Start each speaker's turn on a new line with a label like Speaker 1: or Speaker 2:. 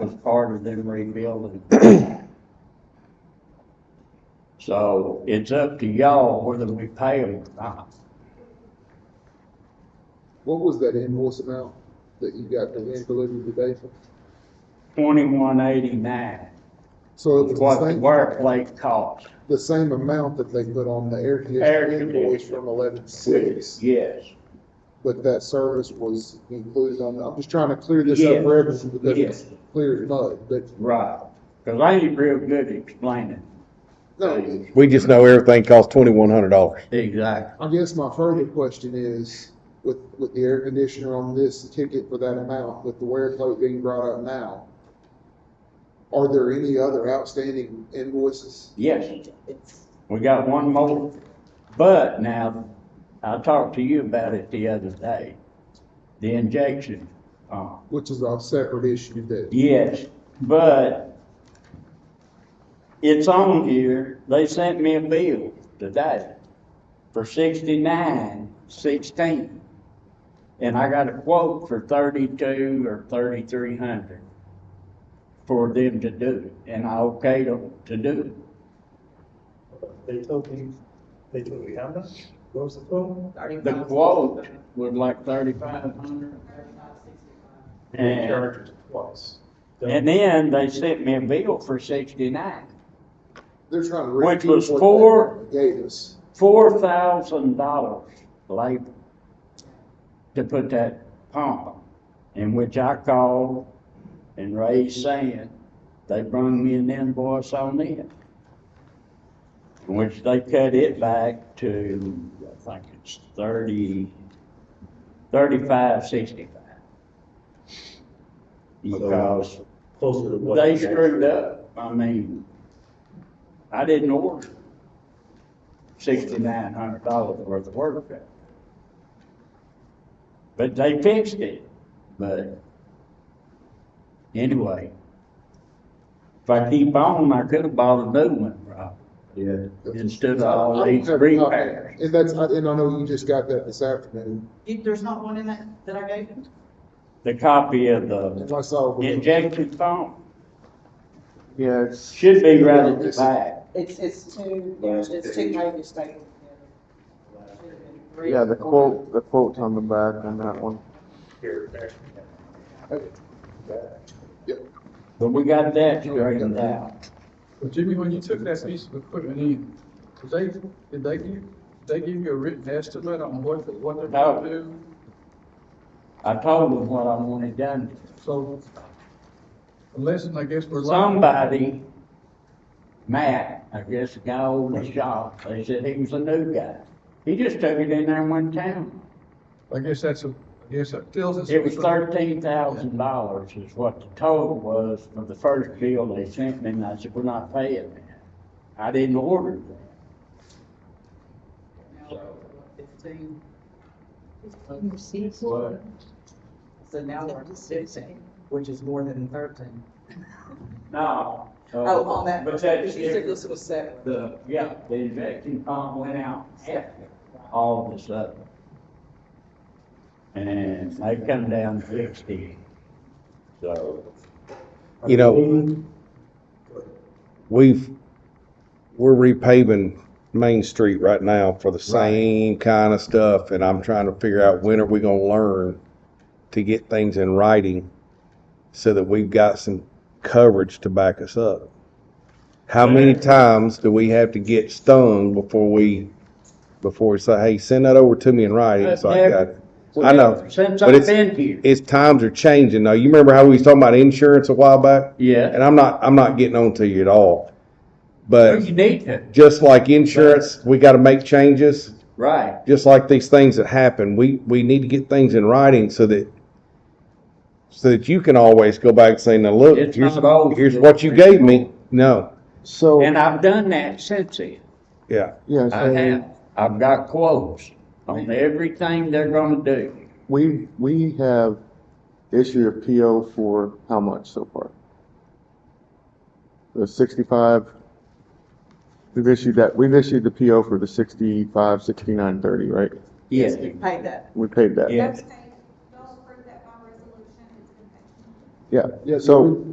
Speaker 1: was part of them rebuilding. So it's up to y'all whether we pay them or not.
Speaker 2: What was that invoice amount that you got the end delivered today?
Speaker 1: Twenty-one eighty-nine
Speaker 2: So it
Speaker 1: is
Speaker 2: was
Speaker 1: what
Speaker 2: the
Speaker 1: the
Speaker 2: same,
Speaker 1: workplace cost.
Speaker 2: the same amount that they put on the air
Speaker 1: Air
Speaker 2: conditioning invoice
Speaker 1: conditioning.
Speaker 2: from eleven six,
Speaker 1: Yes,
Speaker 2: but that service was included on, I'm just trying to clear this up for
Speaker 1: Yes.
Speaker 2: everyone because it's clear as mud, but
Speaker 1: right. Cause I ain't real good at explaining.
Speaker 2: no,
Speaker 3: We just know everything costs twenty-one hundred dollars.
Speaker 1: Exactly.
Speaker 2: I guess my further question is, with, with the air conditioner on this ticket for that amount, with the wear code being brought up now, are there any other outstanding invoices?
Speaker 1: Yes, we got one more, but now, I talked to you about it the other day. The injection, uh,
Speaker 2: Which is a separate issue that,
Speaker 1: Yes, but it's on here, they sent me a bill today for sixty-nine sixteen. And I got a quote for thirty-two or thirty-three hundred for them to do it, and I okayed them to do it.
Speaker 4: They told me, they told me how much? What was the total?
Speaker 1: The quote was like thirty-five hundred.
Speaker 4: They
Speaker 1: And,
Speaker 4: charged us twice.
Speaker 1: and then they sent me a bill for sixty-nine.
Speaker 2: they're trying to.
Speaker 1: Which
Speaker 2: recoup
Speaker 1: was
Speaker 2: what they
Speaker 1: four-
Speaker 2: Gave us.
Speaker 1: four thousand dollars labor to put that pump on, in which I called and raised sand. They brung me an invoice on it, in which they cut it back to, I think it's thirty, thirty-five, sixty-five. Because
Speaker 4: Closer to what?
Speaker 1: they screwed up. I mean, I didn't order sixty-nine hundred dollars worth of work. done. But they fixed it, but anyway. If I keep on, I could have bought a new one, Rob,
Speaker 4: Yeah.
Speaker 1: instead of
Speaker 2: I
Speaker 1: all
Speaker 2: don't
Speaker 1: these
Speaker 2: have a copy.
Speaker 1: repairs.
Speaker 2: And that's, and I know you just got that this afternoon,
Speaker 5: You- There's not one in that, that I gave you?
Speaker 1: The copy of
Speaker 2: and
Speaker 1: the
Speaker 2: I saw.
Speaker 1: injected pump
Speaker 3: Yeah, it's.
Speaker 1: should be right at the back.
Speaker 5: It's, it's two, there's, it's two pages taken together.
Speaker 6: Yeah, the quote, the quote's on the back on that one.
Speaker 4: Here, there.
Speaker 1: But we got that straightened out.
Speaker 7: But Jimmy, when you took that piece of equipment in, did they, did they give, they give you a written estimate on what, what they're
Speaker 1: No.
Speaker 7: gonna do?
Speaker 1: I told them what I wanted done.
Speaker 7: So, unless, I guess we're. liable.
Speaker 1: Somebody, Matt, I guess the guy over the shop, they said he was a new guy. He just took it in there and went down.
Speaker 7: I guess that's a, I guess that tells us.
Speaker 1: It was thirteen thousand dollars is what the total was for the first bill they sent me, and I said, we're not paying that. I didn't order that.
Speaker 5: Fifteen,
Speaker 1: But
Speaker 5: so now we're at fifteen, which is more than thirteen.
Speaker 1: No. uh,
Speaker 5: Oh, on that,
Speaker 1: But
Speaker 5: you
Speaker 1: that's
Speaker 5: said
Speaker 1: different.
Speaker 5: this was separate.
Speaker 1: The, yeah, the injection pump went out after all this other. And they come down sixty, so.
Speaker 3: You know, we've, we're repaving Main Street right now for the same kind of stuff, and I'm trying to figure out when are we gonna learn to get things in writing so that we've got some coverage to back us up. How many times do we have to get stung before we, before we say, hey, send that over to me in writing, so I got it? I know,
Speaker 1: Since
Speaker 3: but
Speaker 1: I've
Speaker 3: it's-
Speaker 1: been here.
Speaker 3: it's times are changing. Now, you remember how we was talking about insurance a while back?
Speaker 1: Yeah.
Speaker 3: and I'm not I'm not getting on to you at all.
Speaker 1: Well,
Speaker 3: But
Speaker 1: you need to,
Speaker 3: just like insurance, we got to make changes.
Speaker 1: right.
Speaker 3: Just like these things that happen, we we need to get things in writing so that so that you can always go back and say, "Now look,
Speaker 1: It's
Speaker 3: here's
Speaker 1: not always
Speaker 3: here's
Speaker 1: the-
Speaker 3: what you gave me." No,
Speaker 6: So,
Speaker 1: And I've done that since then.
Speaker 3: yeah,
Speaker 6: yeah,
Speaker 1: I
Speaker 6: so
Speaker 1: have, I've got quotes on everything they're gonna do.
Speaker 6: we, we have issued a PO for how much so far? The sixty-five, we've issued that, we've issued the PO for the sixty-five, sixty-nine, thirty, right?
Speaker 1: Yes.
Speaker 5: You paid that.
Speaker 6: We paid that.
Speaker 1: Yeah.
Speaker 8: That's okay. Y'all approve that by resolution, it's been paid.
Speaker 6: Yeah,
Speaker 2: Yeah,
Speaker 6: so.
Speaker 2: we-